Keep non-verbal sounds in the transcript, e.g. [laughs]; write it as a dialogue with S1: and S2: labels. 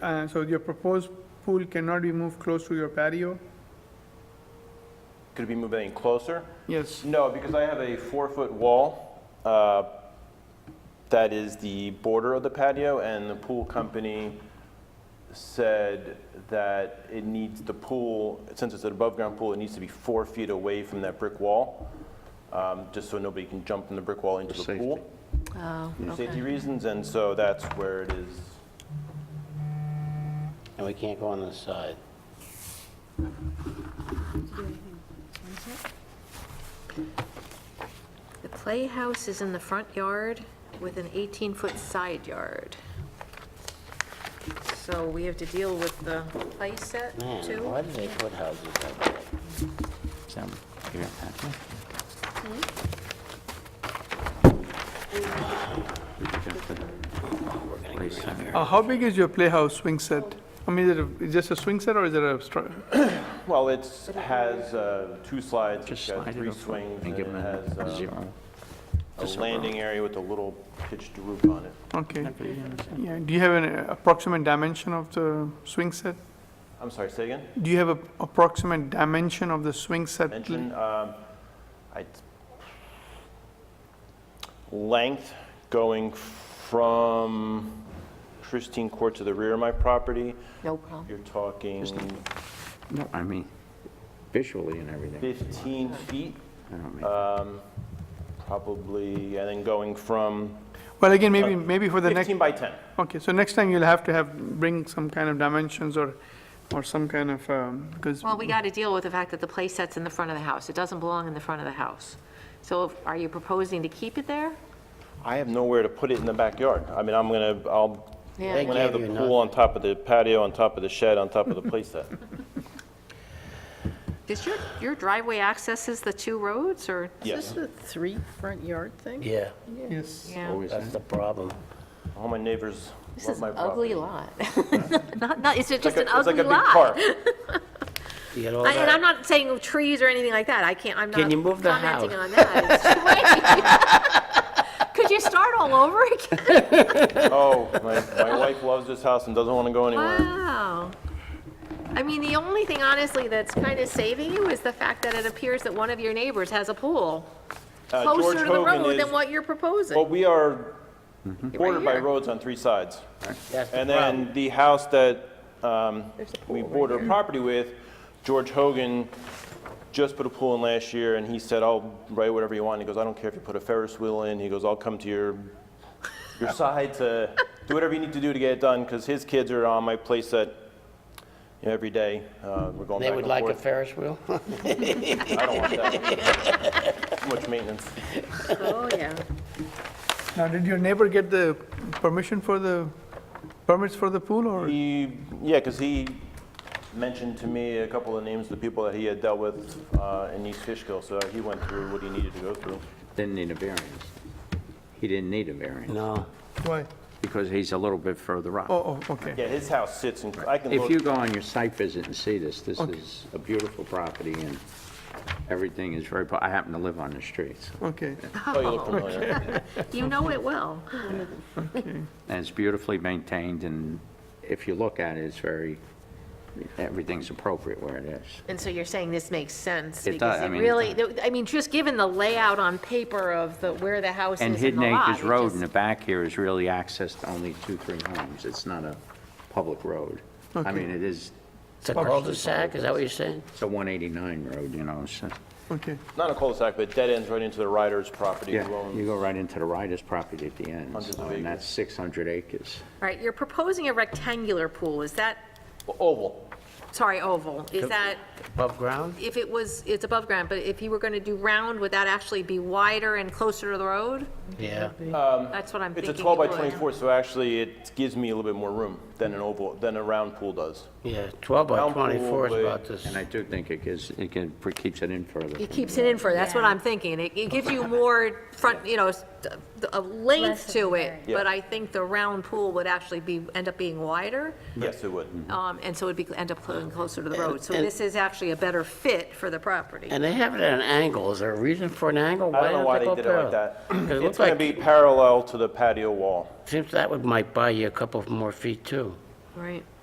S1: Uh, So your proposed pool cannot be moved close to your patio?
S2: Could it be moved any closer?
S1: Yes.
S2: No, because I have a four-foot wall uh, that is the border of the patio, and the pool company said that it needs the pool, since it's an above-ground pool, it needs to be four feet away from that brick wall, um, just so nobody can jump from the brick wall into the pool.
S3: Oh,
S2: For safety
S3: okay.
S2: reasons, and so that's where it is.
S4: And we can't go on the side.
S3: The playhouse is in the front yard with an 18-foot side yard. So we have to deal with the play set
S4: Man,
S3: too?
S4: why do they put houses like that?
S5: So, give me a packet. Just the place on it.
S1: Uh, How big is your playhouse swing set? I mean, is it a- is just a swing set or is it a, stru-
S2: Well, it has uh, two slides, it's
S5: Just
S2: got
S5: slide it
S2: three
S5: over
S2: swings,
S5: and
S2: and it
S5: give them
S2: has
S5: a
S2: uh,
S5: zero.
S2: a
S5: Just a row.
S2: landing area with a little pitched roof on it.
S1: okay.
S5: That'd be interesting.
S1: Yeah, do you have an uh, approximate dimension of the swing set?
S2: I'm sorry, say again?
S1: Do you have a approximate dimension of the swing set?
S2: mention. um, I- Length going from Christine Court to the rear of my property,
S3: No problem.
S2: you're talking
S5: No, I mean, visually and everything.
S2: 15 feet,
S5: I don't mean-
S2: um, probably, and then going from
S1: Well, again, maybe, maybe for the next,
S2: 15 by 10.
S1: okay, so next time you'll have to have, bring some kind of dimensions or, or some kind of, um, because,
S3: Well, we got to deal with the fact that the play set's in the front of the house. It doesn't belong in the front of the house. So if- are you proposing to keep it there?
S2: I have nowhere to put it in the backyard. I mean, I'm gonna, I'll,
S3: Yeah.
S2: I'm gonna have
S4: They
S2: the
S4: gave you
S2: pool on top of the patio, on top of the shed, on top of the
S3: [laughs]
S2: playset.
S3: Does your, your driveway accesses the two roads or?
S2: Yes,
S6: The three front yard thing?
S4: Yeah,
S1: yes.
S3: Yeah.
S5: Always
S4: that's
S5: that.
S4: the problem.
S2: all my neighbors
S3: This
S2: love
S3: is
S2: my
S3: an
S2: property.
S3: ugly lot. [laughs] Not, not, it's
S2: It's
S3: just
S2: like
S3: an
S2: a- it's like
S3: ugly
S2: a big
S3: lot.
S2: park.
S3: [laughs]
S4: You get all
S3: I- And I'm
S4: that,
S3: not saying trees or anything like that. I can't, I'm not
S4: Can you move the
S3: commenting
S4: house?
S3: on that. It's strange. [laughs] Could you start all over again?
S2: Oh, my, my wife loves this house and doesn't want to go anywhere.
S3: Wow. I mean, the only thing honestly that's kind of saving you is the fact that it appears that one of your neighbors has a pool
S2: Uh, George
S3: closer to the
S2: Hogan
S3: road
S2: is,
S3: than what you're
S2: well,
S3: proposing.
S2: we are
S3: Right
S2: bordered by
S3: here.
S2: roads on three sides.
S4: that's the
S2: And
S4: problem.
S2: then the house that um,
S3: There's a pool
S2: we
S3: right
S2: border property with, George Hogan just put a pool in last year and he said, I'll write whatever you want. He goes, I don't care if you put a Ferris wheel in. He goes, I'll come to your,
S4: [laughs]
S2: your side to do whatever you need to do to get it done because his kids are on my place that, you know, every day. Uh, We're going
S4: They
S2: back
S4: would
S2: and
S4: like a
S2: forth.
S4: Ferris wheel? [laughs]
S2: I don't want that.
S4: [laughs]
S2: Too much maintenance.
S3: Oh, yeah.
S1: Now, did your neighbor get the permission for the, permits for the pool or?
S2: He, yeah, because he mentioned to me a couple of names of the people that he had dealt with uh, in East Fishkill, so he went through what he needed to go through.
S5: Didn't need a variance. He didn't need a variance
S4: No.
S1: Why?
S5: because he's a little bit further up.
S1: Oh, oh, okay.
S2: Yeah, his house sits in, I can
S5: If you
S2: look,
S5: go on your site visit and see this, this
S1: Okay.
S5: is a beautiful property and everything is very, po- I happen to live on the street, so-
S1: Okay,
S2: oh, you look familiar.
S3: You know it well.
S1: okay.
S5: and it's beautifully maintained and if you look at it, it's very, everything's appropriate where it is.
S3: And so you're saying this makes sense?
S5: It
S3: because
S5: does, I mean, it
S3: Really, I mean, just given the layout on paper of the, where the house is in
S5: And
S3: the lot.
S5: Hidden Acres
S3: it
S5: Road
S3: just-
S5: in the back here is really accessed only two, three homes. It's not a public road. I
S1: Okay.
S5: mean, it is,
S4: It's a cul-de-sac, is that what you're saying?
S5: it's a 189 road, you know, so,
S1: okay.
S2: Not a cul-de-sac, but it dead ends right into the Ryder's property,
S5: yeah,
S2: who
S5: you
S2: owns,
S5: go right into the Riders property at the end,
S2: Hundreds
S5: so,
S2: of
S5: and
S2: acres.
S5: that's 600 acres.
S3: All right, you're proposing a rectangular pool, is that,
S2: oval.
S3: sorry, oval, is that,
S4: Above ground?
S3: if it was, it's above ground, but if you were going to do round, would that actually be wider and closer to the road?
S4: Yeah.
S3: That's what I'm
S2: It's
S3: thinking.
S2: a 12 by
S3: it would.
S2: 24, so actually it gives me a little bit more room than an oval, than a round pool does.
S4: Yeah, 12 by
S2: Round pool
S4: 24 is
S2: with-
S4: about this.
S5: And I do think it gives, it can- keeps it in further.
S3: It keeps it in for, that's what I'm thinking, it, it gives you more front, you know, s- a length to it,
S2: Yeah.
S3: but I think the round pool would actually be, end up being wider,
S2: Yes, it would.
S4: Mm-hmm.
S3: um, and so it'd be, end up clo- closer to the road, so
S4: and-
S3: this is actually a better fit for the property.
S4: And they have it at an angle. Is there a reason for an angle?
S2: I don't know why they
S4: go
S2: did it like
S4: parallel?
S2: that.
S4: [clears throat] 'Cause it
S2: It's
S4: looks
S2: going to
S4: like,
S2: be parallel to the patio wall.
S4: seems that would might buy you a couple more feet too.
S3: Right.